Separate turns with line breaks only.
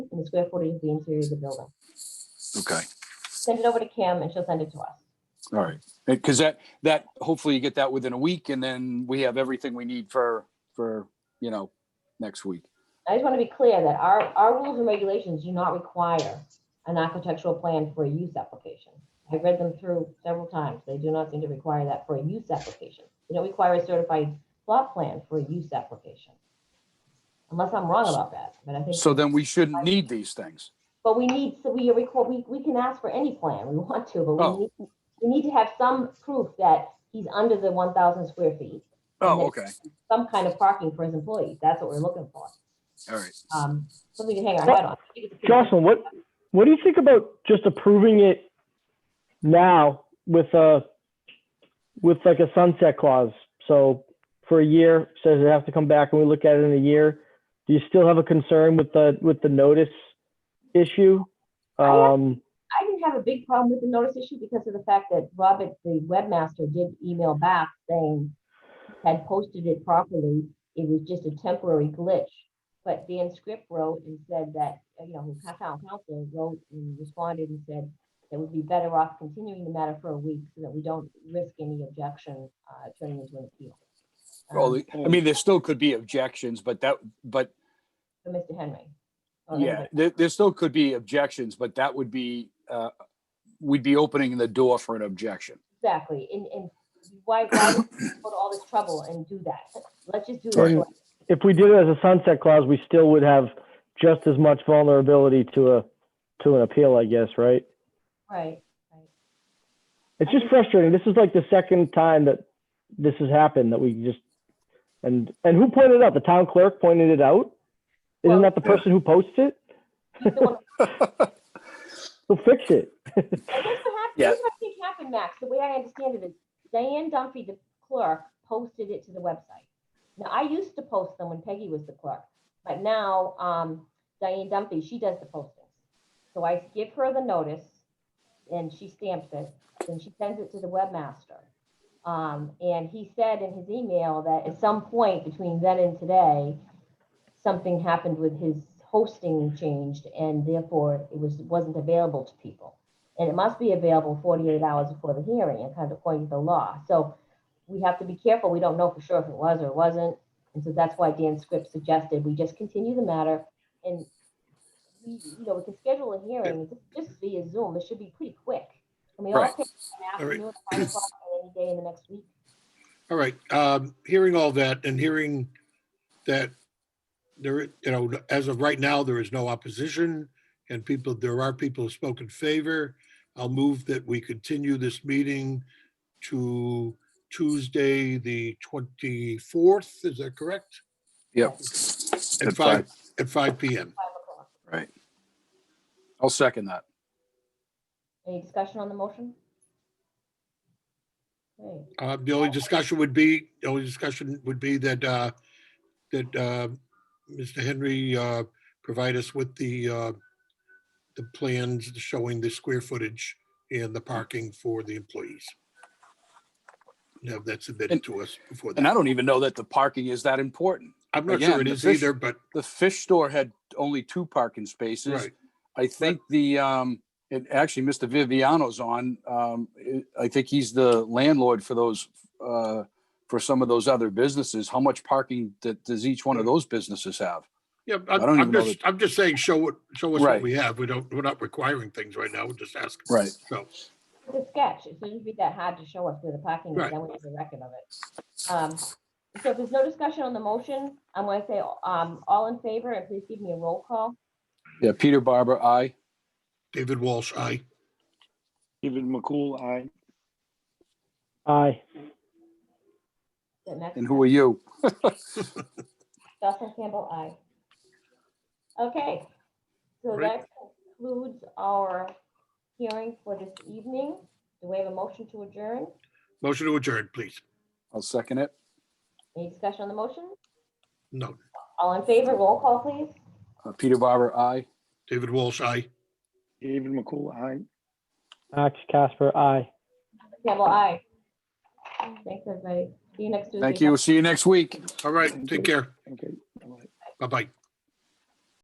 the square footage of the interior of the building.
Okay,
Send it over to Kim and she'll send it to us.
all right. Because that, that, hopefully you get that within a week and then we have everything we need for, for, you know, next week.
I just want to be clear that our, our rules and regulations do not require an architectural plan for a use application. I read them through several times. They do not seem to require that for a use application. They don't require a certified plot plan for a use application. Unless I'm wrong about that, but I think,
So then we shouldn't need these things.
but we need, so we record, we, we can ask for any plan we want to, but
Oh.
we need, we need to have some proof that he's under the one thousand square feet.
Oh, okay,
Some kind of parking for his employees. That's what we're looking for.
all right.
Um, something to hang our head on. I think it's a pretty-
Jocelyn, what, what do you think about just approving it now with a, with like a sunset clause? So for a year, says it has to come back and we look at it in a year. Do you still have a concern with the, with the notice issue?
I
Um,
I didn't have a big problem with the notice issue because of the fact that Robert, the webmaster, did email back saying he had posted it properly. It was just a temporary glitch. But Dan Script wrote and said that, uh, you know, his town council wrote and responded and said it would be better off continuing the matter for a week so that we don't risk any objection uh, turning into an appeal. Um,
Well, I mean, there still could be objections, but that, but
For Mr. Henry. or
Yeah,
anybody.
there, there still could be objections, but that would be, uh, we'd be opening the door for an objection.
Exactly. And, and why, why would we go to all this trouble and do that? Let's just do
Right.
it.
if we did it as a sunset clause, we still would have just as much vulnerability to a, to an appeal, I guess, right?
Right.
It's just frustrating. This is like the second time that this has happened that we just and and who pointed it out? The town clerk pointed it out. Isn't
Well-
that the person who posted it?
He's the one-
Who fixed it?
Well, Here's what happened,
Yeah.
here's what I think happened, Max, the way I understand it is Diane Dunphy, the clerk, posted it to the website. Now, I used to post them when Peggy was the clerk, but now, um, Diane Dunphy, she does the postings. So I give her the notice and she stamps it, and she sends it to the webmaster. Um, and he said in his email that at some point between then and today, something happened with his hosting changed and therefore it was, wasn't available to people. And it must be available 48 hours before the hearing and kind of according to the law. So we have to be careful. We don't know for sure if it was or wasn't. And so that's why Dan Scripps suggested we just continue the matter and we, you know, we can schedule a hearing just via Zoom. It should be pretty quick. And we all
Right.
pick an
All right.
afternoon, five o'clock, or any day in the next week.
All right, um, hearing all that and hearing that there, you know, as of right now, there is no opposition and people, there are people who spoke in favor. I'll move that we continue this meeting to Tuesday, the twenty-fourth, is that correct?
Yep.
At
At
five, at five PM.
five o'clock.
Right. I'll second that.
Any discussion on the motion? Okay,
Uh, the only discussion would be, the only discussion would be that, uh, that, uh, Mr. Henry, uh, provide us with the, uh, the plans showing the square footage and the parking for the employees. Have that submitted to us before
And I
that.
don't even know that the parking is that important.
I'm not sure
again,
it
the
is
fish-
either, but,
The fish store had only two parking spaces.
right,
I think the, um, and actually Mr. Viviano's on, um, I think he's the landlord for those, uh, for some of those other businesses. How much parking that does each one of those businesses have?
yeah,
don't
I'm,
even
I'm
know
just, I'm just saying, show what, show us
Right.
what we have. We don't, we're not requiring things right now, we're just asking.
Right.
So,
It's a sketch. It shouldn't be that hard to show us where the parking is,
Right.
then we have a record of it. Um, So if there's no discussion on the motion, I'm going to say, um, all in favor, and please give me a roll call.
Yeah, Peter Barber, I.
David Walsh, aye.
David McCool, aye.
Aye.
That Max
And who are you?
Jocelyn Campbell, aye. Okay, so
Great.
that concludes our hearing for this evening. Do we have a motion to adjourn?
Motion to adjourn, please.
I'll second it.
Any discussion on the motion?
No,
All in favor, roll call, please.
Uh, Peter Barber, I.
David Walsh, aye.
David McCool, aye.
Max Casper, aye.
Campbell, aye. Thanks, everybody. See you next Tuesday.
Thank you. See you next week.
All right, take care.
Okay. all right.
Bye-bye.